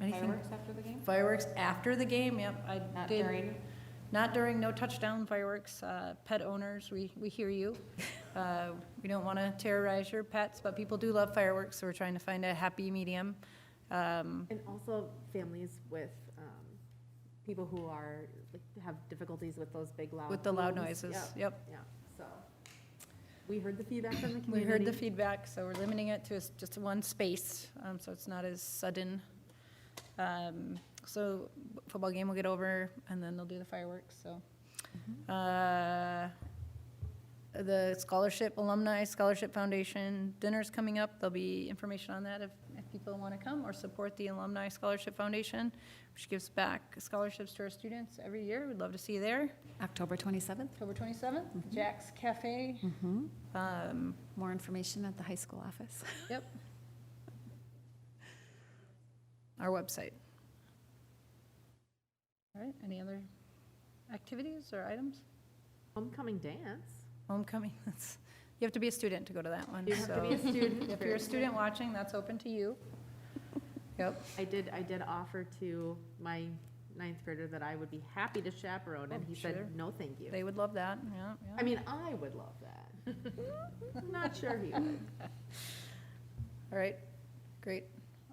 Anything? Fireworks after the game? Fireworks after the game, yep, I did. Not during? Not during, no touchdown fireworks. Uh, Pet owners, we, we hear you. Uh, We don't want to terrorize your pets, but people do love fireworks, so we're trying to find a happy medium. Um, And also families with, um, people who are, like, have difficulties with those big loud. With the loud beeps. noises, Yep, yep. Yeah, so, we heard the feedback from the We community. heard the feedback, so we're limiting it to s- just one space, um, so it's not as sudden. Um, So football game will get over, and then they'll do the fireworks, so. Uh, The scholarship, alumni scholarship foundation dinner's coming up. There'll be information on that if, if people want to come or support the alumni scholarship foundation, which gives back scholarships to our students every year. We'd love to see you there. October 27th. October 27th, Jack's Cafe. Um, More information at the high school office. Yep. Our website. All right, any other activities or items? Homecoming dance. Homecoming, that's, you have to be a student to go to that one, You have to be a so. student. If for- you're a student watching, that's open to you. Yep, I did, I did offer to my ninth grader that I would be happy to chaperone, and Oh, he sure. said, no, thank you. they would love that, yeah, I yeah. mean, I would love that. I'm Not sure he would. All right, great.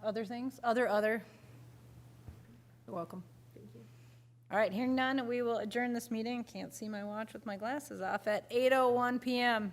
Other things, other, other? You're welcome. Thank you. All right, oh hearing none, we will adjourn this meeting. Can't see my watch with my glasses off at 8:01 PM.